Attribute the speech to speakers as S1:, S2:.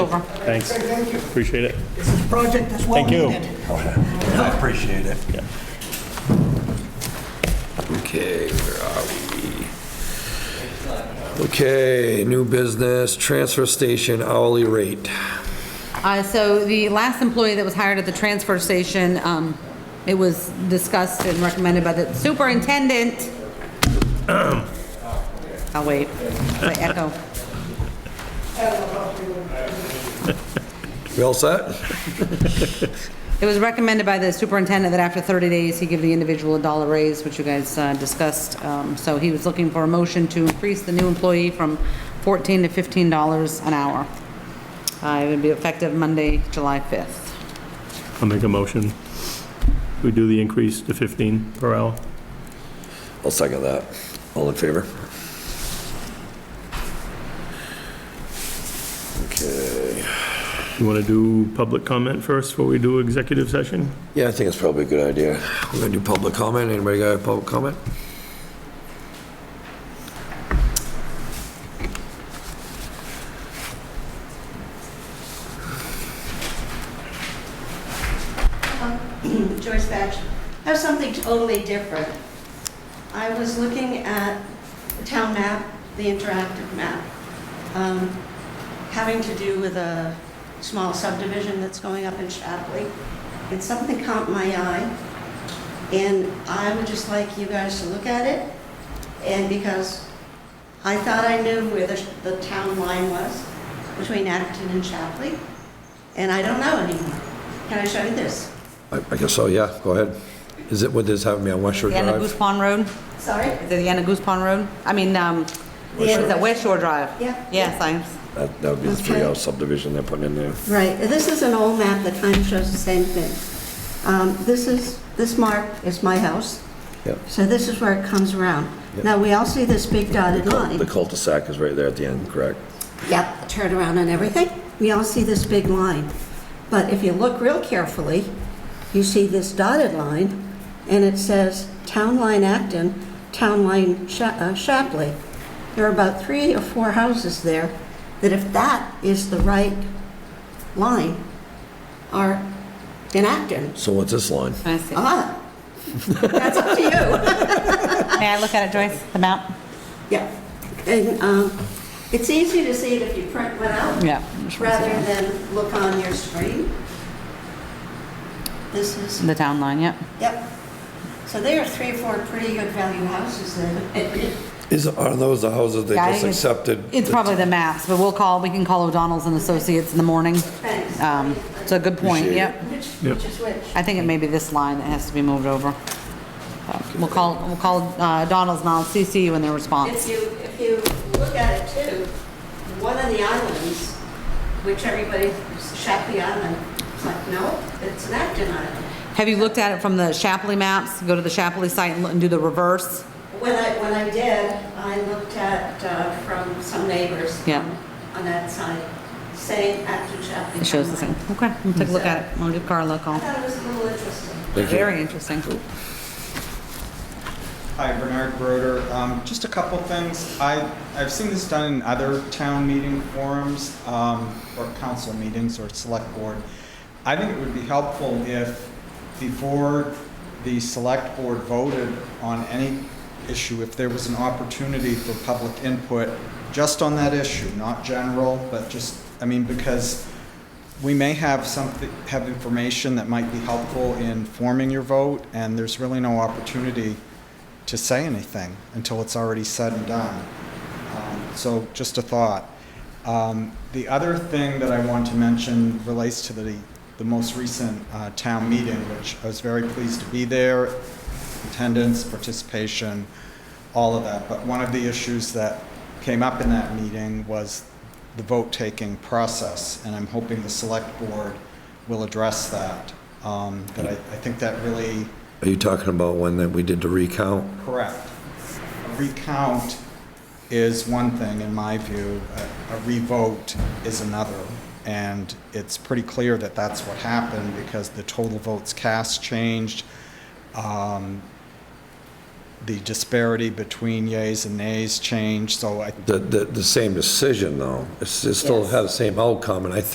S1: over.
S2: Thanks.
S3: Thank you.
S2: Appreciate it.
S3: This is project that's well
S2: Thank you.
S3: needed.
S4: I appreciate it.
S5: Okay, where are we? Okay, new business, transfer station hourly rate.
S1: Uh, So the last employee that was hired at the transfer station, um, it was discussed and recommended by the superintendent. I'll wait, wait, echo.
S5: We all set?
S1: It was recommended by the superintendent that after 30 days, he give the individual a dollar raise, which you guys uh, discussed. Um, So he was looking for a motion to increase the new employee from 14 to 15 dollars an hour. Uh, It would be effective Monday, July 5th.
S2: I'll make a motion. We do the increase to 15 per hour.
S5: I'll second that. All in favor? Okay.
S2: You want to do public comment first before we do executive session?
S5: Yeah, I think it's probably a good idea. We're gonna do public comment. Anybody got a public comment?
S6: Joyce Batch, I have something totally different. I was looking at the town map, the interactive map, um, having to do with a small subdivision that's going up in Shapley, and something caught my eye, and I would just like you guys to look at it, and because I thought I knew where the, the town line was between Acton and Shapley, and I don't know anymore. Can I show you this?
S5: I I guess so, yeah, go ahead. Is it, what is having me on West Shore
S1: The end of Goose
S5: Drive?
S1: Pond Road?
S6: Sorry?
S1: Is it the end of Goose Pond Road? I mean, um, what is that West Shore Drive?
S6: Yeah.
S1: Yes, I,
S5: That that would be the three-house subdivision they're putting in there.
S6: Right, this is an old map that kind of shows the same thing. Um, This is, this mark is my house,
S5: Yep.
S6: so this is where it comes around.
S5: Yep.
S6: Now, we all see this big dotted
S5: The
S6: line.
S5: cul-de-sac is right there at the end, correct?
S6: Yep, turn around and everything. We all see this big line. But if you look real carefully, you see this dotted line, and it says Town Line Acton, Town Line Sha- uh, Shapley. There are about three or four houses there that if that is the right line, are in Acton.
S5: So what's this line?
S1: I see.
S6: Ah, that's up to you.
S1: May I look at it, Joyce, the map?
S6: Yeah, and um, it's easy to see it if you print one out.
S1: Yeah.
S6: rather than look on your screen. This is,
S1: The town line, yep.
S6: yep. So there are three or four pretty good value houses then.
S5: Is, are those the houses they
S1: Yeah, I
S5: just
S1: think it's-
S5: accepted?
S1: It's probably the maps, but we'll call, we can call O'Donnell's and Associates in the morning.
S6: Thanks.
S1: Um, It's a good point,
S5: Appreciate
S1: yep.
S6: Which,
S2: Yep.
S6: which is which?
S1: I think it may be this line that has to be moved over. Uh, We'll call, we'll call uh, O'Donnell's and I'll CC you in their response.
S6: If you, if you look at it too, one of the islands, which everybody, Shapley Island, it's like, no, it's an Acton Island.
S1: Have you looked at it from the Shapley maps? Go to the Shapley site and look- and do the reverse?
S6: When I, when I did, I looked at, uh, from some neighbors.
S1: Yeah.
S6: On that side, saying after Chapley.
S1: It shows the same. Okay, we'll take a look at it. We'll give Carla a
S6: I
S1: call.
S6: thought it was a little interesting.
S1: Very interesting.
S7: Hi, Bernard Broder. Um, Just a couple things. I, I've seen this done in other town meeting forums, um, or council meetings, or select board. I think it would be helpful if, before the select board voted on any issue, if there was an opportunity for public input, just on that issue, not general, but just, I mean, because we may have something, have information that might be helpful in forming your vote, and there's really no opportunity to say anything until it's already said and done. Um, So just a thought. Um, The other thing that I want to mention relates to the, the most recent uh, town meeting, which I was very pleased to be there, attendance, participation, all of that. But one of the issues that came up in that meeting was the vote-taking process, and I'm hoping the select board will address that. Um, But I, I think that really
S5: Are you talking about when that we did the recount?
S7: Correct. A recount is one thing, in my view, a a revote is another. And it's pretty clear that that's what happened because the total votes cast changed. Um, The disparity between yays and nays changed, so I
S5: The, the, the same decision though. It's, it still had the same outcome and I think